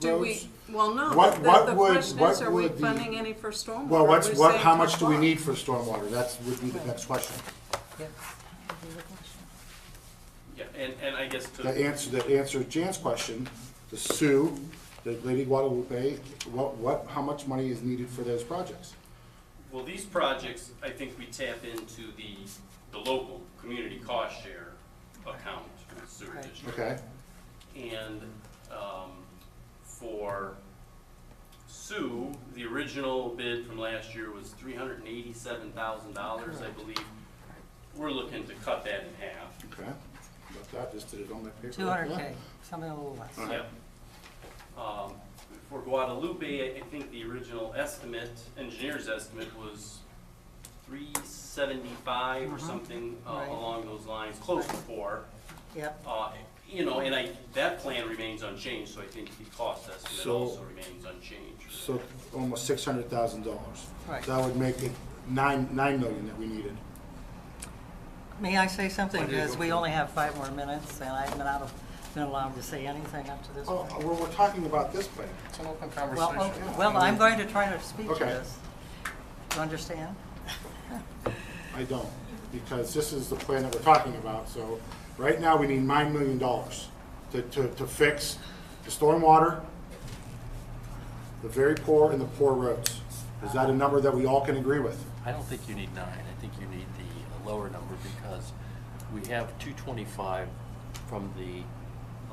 Do roads? we, well, no, What- the, what the- the would- question what is, are we would the- funding any for stormwater? Well, what's, We're what, saying how to much do we apply. need for stormwater? That's, would be the next question. Yeah, and, and I guess That to, answer, that answers Jan's question, the Sioux, the Lady Guadalupe, what, what, how much money is needed for those projects? well, these projects, I think we tap into the, the local community cost share account for the sewer Right. district. Okay, And um, for Sue, the original bid from last year was three hundred and eighty-seven thousand dollars, I believe. We're looking to cut that in half. okay. But I just did it on that paper. Two hundred K, something a little less. Yep. Um, For Guadalupe, I- I think the original estimate, engineer's estimate was three seventy-five or Uh-huh. something uh, Right. along those lines, close to four. Yep, Uh, You know, and I, that plan remains unchanged, so I think the cost estimate So- also remains unchanged. So almost six hundred thousand dollars. Right. That would make it nine, nine million that we needed. may I say something, Why do you because go we for it? only have five more minutes, and I haven't been out of, been allowed to say anything up to this Oh, point. well, we're talking about this plan. It's an open Well, conversation. oh, well, I'm going to try to speak to Okay. this. You understand? I don't, because this is the plan that we're talking about, so right now, we need nine million dollars to, to, to fix the stormwater, the very poor and the poor roads. Is that a number that we all can agree with? I don't think you need nine, I think you need the lower number because we have two twenty-five from the.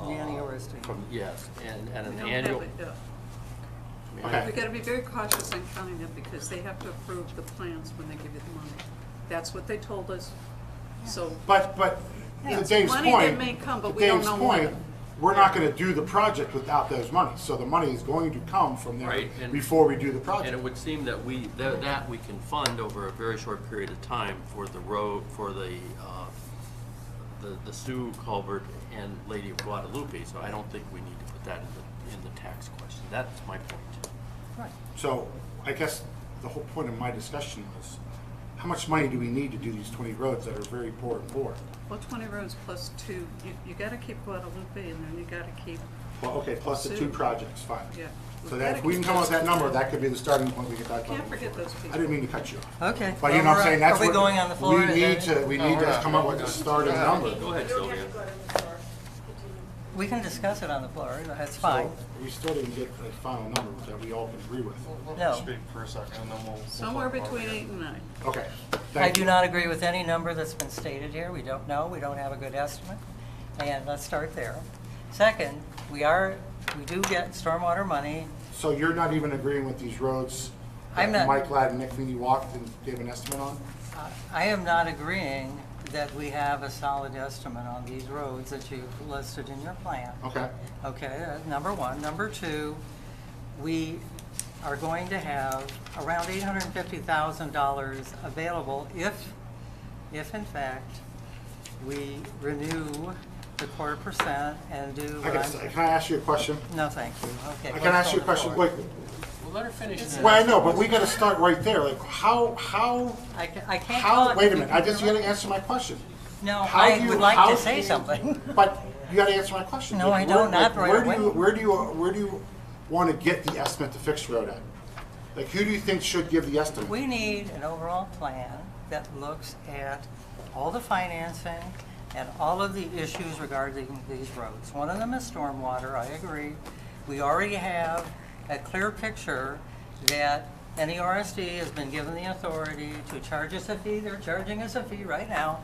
uh, The annual restatement. From, yes, and, and We an don't have annual. it, yeah. Okay. We gotta be very cautious in counting them, because they have to approve the plans when they give you the money. That's what they told us, so, But, but, Yeah. to Dave's Money that point, may come, but to we don't Dave's know when. point, we're not gonna do the project without those monies, so the money is going to come from there Right, and- before we do the And it project. would seem that we, that, that we can fund over a very short period of time for the road, for the, uh, the, the Sioux culvert and Lady of Guadalupe, so I don't think we need to put that in the, in the tax question, that's my point. Right. So, I guess the whole point of my discussion was, how much money do we need to do these twenty roads that are very poor and poor? well, twenty roads plus two, you, you gotta keep Guadalupe in there, and you gotta keep, Well, okay, plus the two Two. projects, fine. yeah. So that, if we can come up with that number, that could be the starting point we could talk about. Can't forget before. those people. I didn't mean to cut you off. Okay. uh, But you know what I'm saying, that's Are what. we going on the floor? We need to, we No, need we're to not. come up with a starting number. Go ahead, We don't Sylvia. have to go to the store. Continue. We can discuss it on the floor, that's fine. So, We still didn't get a final number that we all can agree with. We'll- No. we'll Speak for a second, and then we'll. we'll Somewhere talk about between it. eight and nine. Okay. I thank do you. not agree with any number that's been stated here. We don't know, we don't have a good estimate, and let's start there. Second, we are, we do get stormwater money. So you're not even agreeing with these roads I'm that not- Mike Ladd and Nick Meany walked and gave an estimate on? Uh, I am not agreeing that we have a solid estimate on these roads that you've listed in your plan. Okay, Okay, that's number one. Number two, we are going to have around $850,000 available if, if in fact, we renew the quarter percent and do I what can, I'm... can I ask you a question? No, thank you. Okay. I let's can ask you go a on question, forward. wait, Well, let her finish. and then well, I ask know, the but we question. gotta start right there, like, how, how, I ca- I can't how, talk... wait a if minute, you I just, you can- gotta answer my question. No, How do I you- would like how to say do you- something. But you gotta answer my question. No, Like, I where- don't, not like, right Where do away. you, where do you, where do you wanna get the estimate to fix the road at? Like, who do you think should give the estimate? We need an overall plan that looks at all the financing and all of the issues regarding these roads. One of them is stormwater, I agree. We already have a clear picture that E NERSD has been given the authority to charge us a fee. They're charging us a fee right now.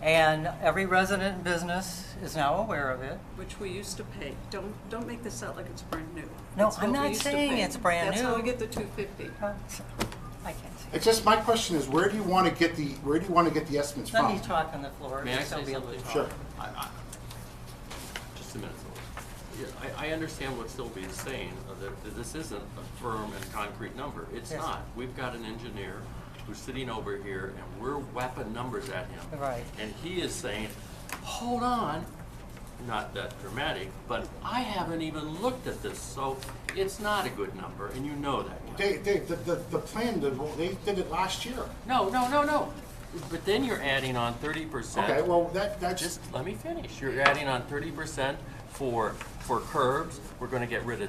And every resident and business is now aware of it. which we used to pay. Don't, don't make this out like it's brand new. No, That's I'm what we not used to saying pay. it's brand That's how we new. get the two fifty. I can't see. It's just, my question is, where do you wanna get the, where do you wanna get the estimates from? Let me talk on the floor. May I so say be able to something? talk. Sure. I, I, just a minute, Sylvia. Yeah, I, I understand what Sylvia is saying, uh, that that this isn't a firm and concrete number. It's Yes. not. We've got an engineer who's sitting over here and we're whapping numbers at him. Right. And he is saying, hold on, not that dramatic, but I haven't even looked at this, so it's not a good number, and you know that. Ken. Dave, Dave, the, the, the plan, the- they did it last year. No, no, no, no. But then you're adding on thirty percent. Okay, well, that, that's, Just let me finish. You're adding on thirty percent for, for curbs. We're gonna get rid of